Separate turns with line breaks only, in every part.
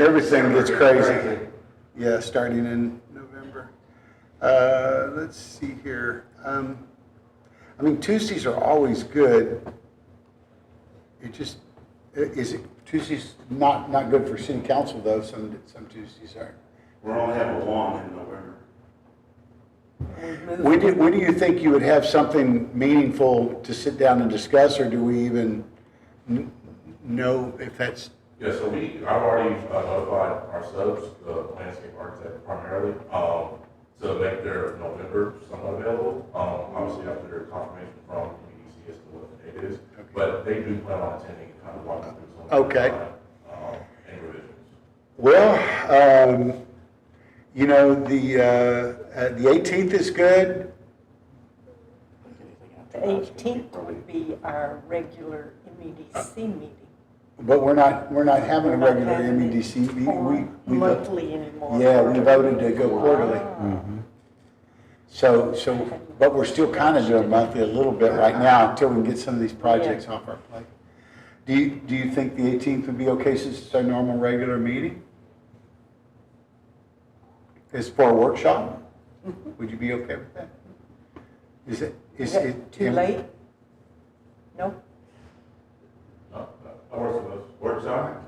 Everything gets crazy. Yeah, starting in November. Uh, let's see here. Um, I mean, Tuesdays are always good. It just, i- is it, Tuesdays not, not good for city council though, some, some Tuesdays are.
We're only having one in November.
When do, when do you think you would have something meaningful to sit down and discuss, or do we even kn- know if that's,
Yeah, so we, I've already uh, notified our subs, the landscape architect primarily, um, to make their November somewhat available. Um, obviously after confirmation from EDC as to what the date is,
Okay.
but they do plan on attending and kind of walking through some. of the
Okay.
design, Um, and revisions.
well, um, you know, the, uh, uh, the 18th is good,
The 18th would be our regular MEDC meeting.
but we're not, we're not having a
We're not
regular
having it
MEDC. We- we-
on
we-
Monthly anymore.
Yeah, we voted to go quarterly.
Ah,
So, so, but we're still kind of doing monthly a little bit right now until we can get some of these projects off our plate. Do you, do you think the 18th would be okay since it's our normal regular meeting? It's for a workshop? Would you be okay with that? Is it,
Mm-hmm.
is
Is that
it? E
too late? No?
No, no, Uh, that works with us. Works out.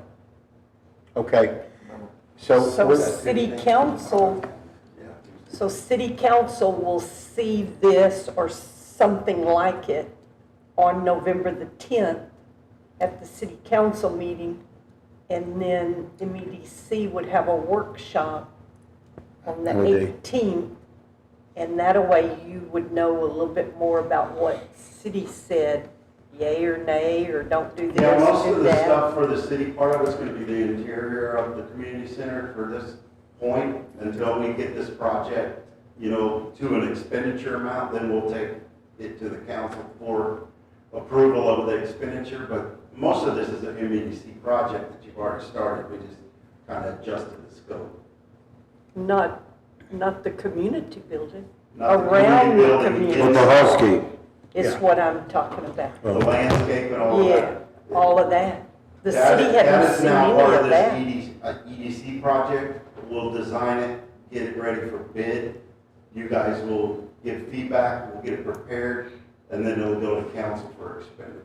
Okay. So,
So
we're-
city council, so city council will see this or something like it on November the 10th at the city council meeting. And then the MEDC would have a workshop on the
Would they?
18th. And that a way you would know a little bit more about what city said, yay or nay, or don't do
Yeah,
this,
most of
do
the
that.
stuff for the city part of it's gonna be the interior of the community center for this point, until we get this project, you know, to an expenditure amount, then we'll take it to the council for approval of the expenditure, but most of this is an MEDC project that you've already started, we just kind of adjusted the scope.
Not, not the community building.
Not the
Around the
building,
community.
it's
On the husky,
It's
Yeah.
what I'm talking about.
The landscape and all
Yeah,
that.
all of that. The
That-
city hadn't seen any of
That is
that.
now part of this EDC, uh, EDC project. We'll design it, get it ready for bid. You guys will give feedback, we'll get it prepared, and then it'll go to council for expenditure.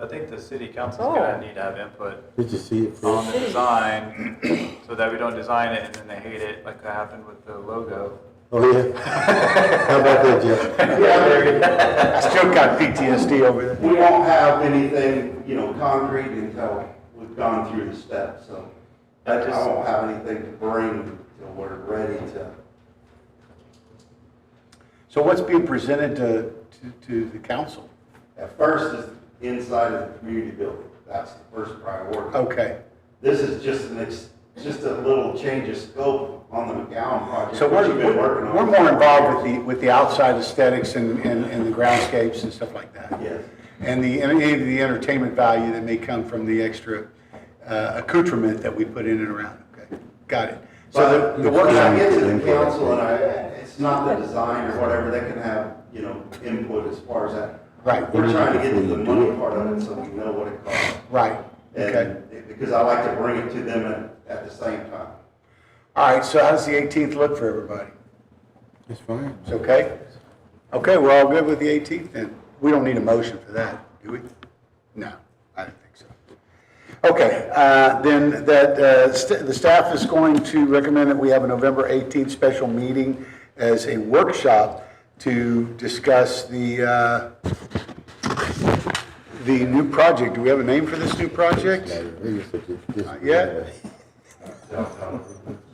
I think the city council's gonna need to have input
did you see it first?
on the design, so that we don't design it and then they hate it, like that happened with the logo.
Oh, yeah. How about that, Jeff?
I still got PTSD over that.
We won't have anything, you know, concrete until we've gone through the steps, so I
That
I
just-
won't have anything to bring until we're ready to.
So what's being presented to, to, to the council?
At first is inside of the community building. That's the first priority.
Okay.
This is just an, ex- just a little change of scope on the McGowan project.
So
which
we're,
you've been working on.
we're more involved with the, with the outside aesthetics and, and, and the groundscapes and stuff like that.
Yes.
And the, any of the entertainment value that may come from the extra uh, accoutrement that we put in and around. Okay, Got it. So
But
the- the
when I
workshop,
get to the council and I, it's not the design or whatever, they can have, you know, input as far as that.
Right.
We're trying to get to the money part of it so we know what it costs.
right, okay.
And because I like to bring it to them at, at the same time.
All right, so how's the 18th look for everybody?
It's fine.
It's okay? Okay, we're all good with the 18th then? We don't need a motion for that, do we? No, I don't think so. Okay, uh, then that, uh, st- the staff is going to recommend that we have a November 18th special meeting as a workshop to discuss the, uh, the new project. Do we have a name for this new project?
Not
yet?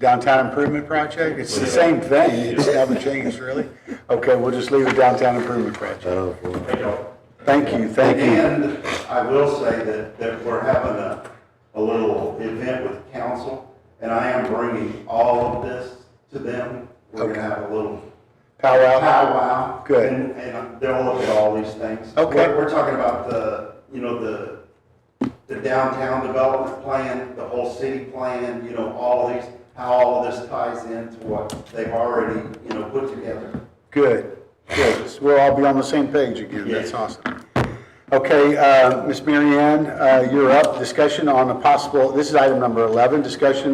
Downtown Improvement Project? It's the same thing, it's never changed, really? Okay, we'll just leave it Downtown Improvement Project.
Oh, boy.
Thank y'all.
Thank you, thank you.
And I will say that, that we're having a, a little event with council, and I am bringing all of this to them. We're
Okay.
gonna have a little
Powwow?
powwow.
Good.
And, and they'll look at all these things.
Okay.
We're, we're talking about the, you know, the, the downtown development plan, the whole city plan, you know, all these, how all of this ties into what they've already, you know, put together.
Good, good. So We'll all be on the same page again, that's
Yeah.
awesome. Okay, uh, Ms. Mary Ann, uh, you're up. Discussion on a possible, this is item number 11, discussion